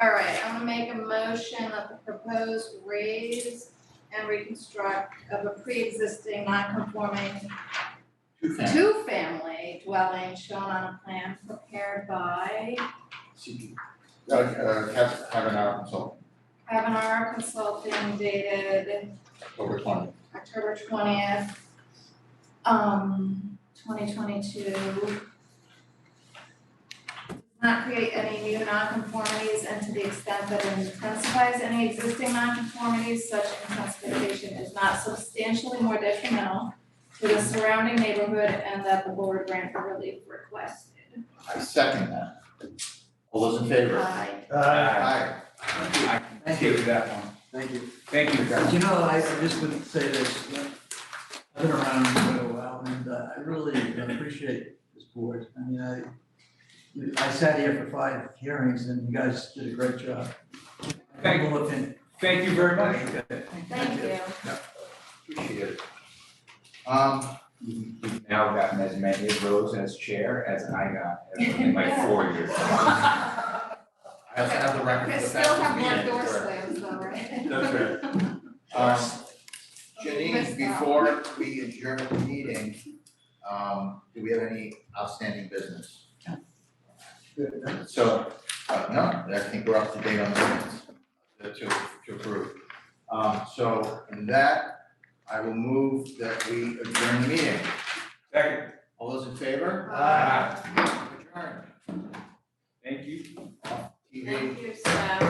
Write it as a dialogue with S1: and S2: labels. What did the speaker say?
S1: All right, I'm gonna make a motion that the proposed raise and reconstruct of a pre-existing non-conforming
S2: Two family,
S1: two-family dwelling shown on a plan prepared by
S2: CP.
S3: Uh, uh, have, have an hour until
S1: Kavanaugh Consulting dated
S3: October twenty.
S1: October twentieth, um, twenty twenty-two. Not create any new nonconformities and to the extent that it intensifies any existing nonconformities, such intensification is not substantially more detrimental to the surrounding neighborhood and that the board grant the relief requested.
S3: I second that.
S2: All those in favor?
S1: Aye.
S4: Uh,
S3: Aye.
S4: I can give you that one.
S5: Thank you.
S4: Thank you, guys.
S5: You know, I I just would say this, you know, I've been around for a while and uh, I really appreciate this board. I mean, I, you- I sat here for five hearings and you guys did a great job.
S4: Thank you.
S5: Humble opinion.
S4: Thank you very much.
S1: Thank you.
S4: Appreciate it.
S3: Um,
S4: You've now gotten as many of those as chair as I got in like four years.
S3: I also have the record
S1: Okay,
S3: of the
S1: still have
S3: faculty
S1: more
S3: meeting.
S1: door slams though, right?
S4: That's right.
S3: Um,
S1: Missed that.
S3: Janine, before we adjourn the meeting, um, do we have any outstanding business? So, uh, no, I think we're up to date on the minutes uh, to, to approve. Um, so in that, I will move that we adjourn the meeting.
S4: Second.
S3: All those in favor?
S4: Ah,
S3: Adjourn.
S4: Thank you.
S3: TV.
S1: Thank you, Seth.